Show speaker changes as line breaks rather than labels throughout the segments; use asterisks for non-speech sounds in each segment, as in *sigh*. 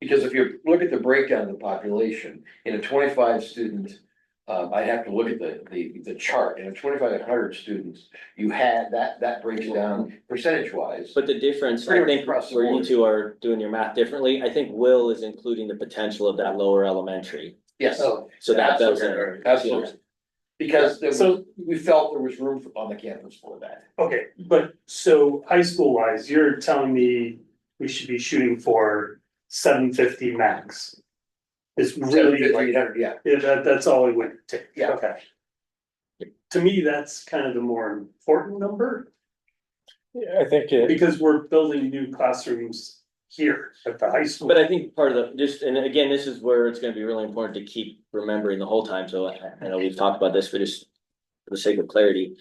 Because if you look at the breakdown of the population, in a twenty-five student, um, I'd have to look at the, the, the chart, in a twenty-five hundred students, you had, that, that breaks down percentage-wise.
But the difference,
Pretty
I
much
think
across the
where you
board.
two are doing your math differently, I think Will is including the potential of that lower elementary.
Yes,
Oh, So that
Absolutely.
doesn't.
absolutely. Because there was,
So-
we felt there was room on the campus for that.
Okay, but so high school wise, you're telling me we should be shooting for seven fifty max? Is really like,
750, Yeah,
yeah, that, that's all it would take,
Yeah.
okay. To me, that's kind of the more important number,
Yeah, I think it,
because we're building new classrooms here at the high school.
But I think part of the, just, and again, this is where it's gonna be really important to keep remembering the whole time, so I, I know we've talked about this, but just. For the sake of clarity,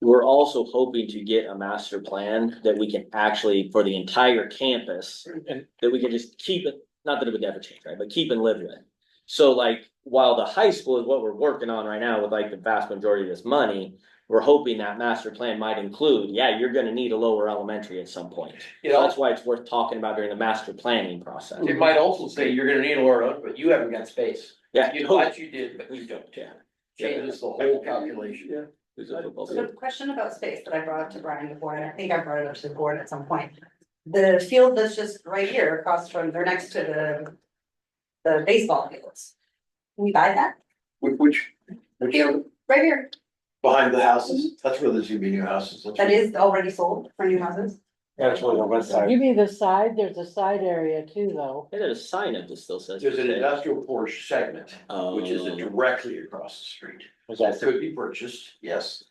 we're also hoping to get a master plan that we can actually, for the entire campus.
and
that we can just keep it, not that it would never change, right, but keep and live with. So like, while the high school is what we're working on right now with like the vast majority of this money, we're hoping that master plan might include, yeah, you're gonna need a lower elementary at some point.
you
So
know,
that's why it's worth talking about during the master planning process.
it might also say you're gonna need a lower, but you haven't got space.
Yeah.
You thought you did, but you don't.
Yeah.
Changes the whole calculation.
Yeah.
Who's a football
So
player?
the question about space that I brought up to Brian before, and I think I brought it up to the board at some point. The field that's just right here across from, they're next to the. The baseball fields. We buy that
Which, which, which.
field right here,
Behind the houses, that's where there's gonna be new houses. That's
that
where-
is already sold for new houses.
that's what the west side,
You mean the side, there's a side area too, though.
They did a sign up that still says.
There's an industrial porch segment, which is
Oh.
Um,
directly across the street.
was
That
that,
could be purchased, yes.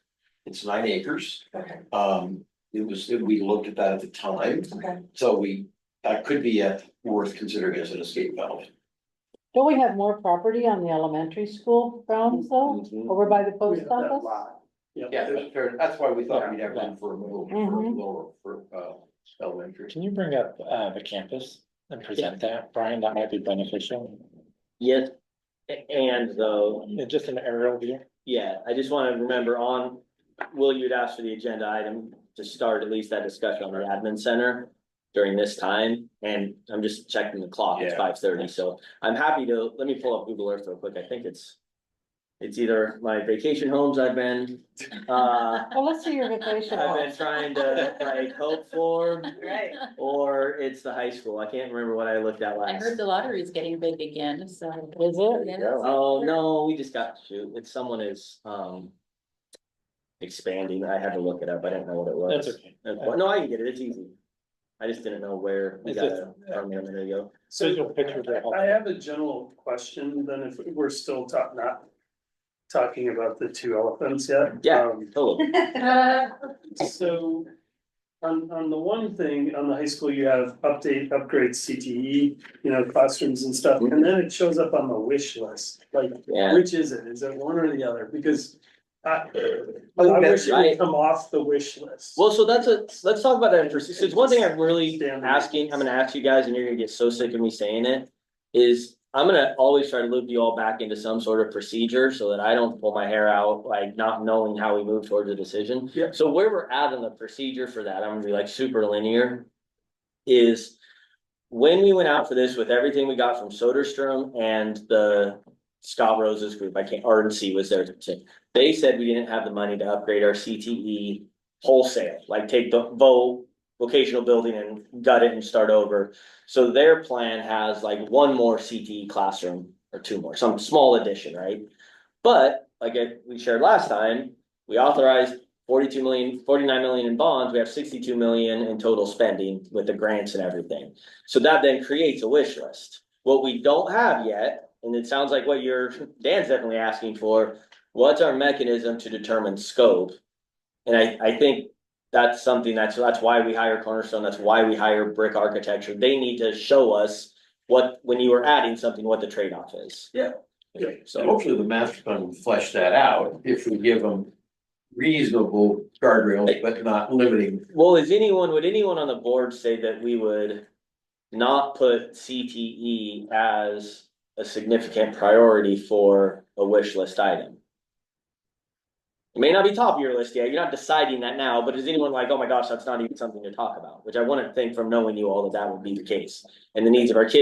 It's nine acres.
Okay.
Um, it was, we looked at that at the time,
Okay.
so we, that could be uh, worth considering as an escape valve.
Don't we have more property on the elementary school grounds though,
Mm-hmm.
mhm.
over by the
We
post
have that
office?
lot.
Yeah, there's a fair, that's why we thought we'd have room for a little, for a
Mm-hmm.
Mhm.
lower, for uh, elementary.
can you bring up uh the campus and present that, Brian, that might be beneficial,
Yes, A- and though,
Yeah, just an aerial view.
Yeah, I just wanna remember on, Will, you'd asked for the agenda item to start at least that discussion on the admin center during this time, and I'm just checking the clock, it's
Yeah.
five thirty, so I'm happy to, let me pull up Google Earth real quick, I think it's it's either my vacation homes I've been,
*laughs*
uh,
Well, let's see your
*laughs*
vacation.
I've been trying to like hope for,
*laughs* Right.
or it's the high school, I can't remember what I looked at
I
last.
heard the lottery is getting big again, so.
Is it?
Oh, no, we just got to shoot, it's someone is, um. Expanding, I had to look it up, I didn't know what it was.
That's okay.
That's why- No, I can get it, it's easy. I just didn't know where we
It's
got
just-
it from a minute ago.
Visual picture of the whole-
I have a general question, then if we're still talk, not talking about the two elephants yet.
Yeah.
Um,
Total,
Uh,
So on on the one thing, on the high school, you have update, upgrade CTE, you know, classrooms and stuff, and then it shows up on the wish list. Like,
yeah,
which is it? Is it one or the other? Because I I
that's
wish it
right.
would come off the wish list.
well, so that's a, let's talk about that for, since one thing I'm really asking, I'm gonna ask you guys, and you're gonna get so sick of me saying it. Is I'm gonna always try to loop you all back into some sort of procedure so that I don't pull my hair out, like not knowing how we move towards a decision.
Yeah.
So where we're at in the procedure for that, I'm gonna be like super linear. Is when we went out for this with everything we got from Soderstrom and the Scott Rose's group, I can't, R and C was there to, they said we didn't have the money to upgrade our CTE wholesale, like take the Vo vocational building and gut it and start over. So their plan has like one more CTE classroom or two more, some small addition, right? But like I- we shared last time, we authorized 42 million, 49 million in bonds, we have sixty-two million in total spending with the grants and everything. So that then creates a wish list. What we don't have yet, and it sounds like what you're, Dan's definitely asking for, what's our mechanism to determine scope? And I, I think that's something that's, that's why we hire Cornerstone, that's why we hire Brick Architecture. They need to show us what, when you are adding something, what the trade-off is.
Yeah. Yeah.
So
So,
hopefully the master plan will flesh that out if we give them reasonable guardrails, but not limiting.
well, is anyone, would anyone on the board say that we would not put CTE as a significant priority for a wish list item? It may not be top of your list yet, you're not deciding that now, but is anyone like, oh my gosh, that's not even something to talk about? Which I wouldn't think from knowing you all that that would be the case, and the needs of our kids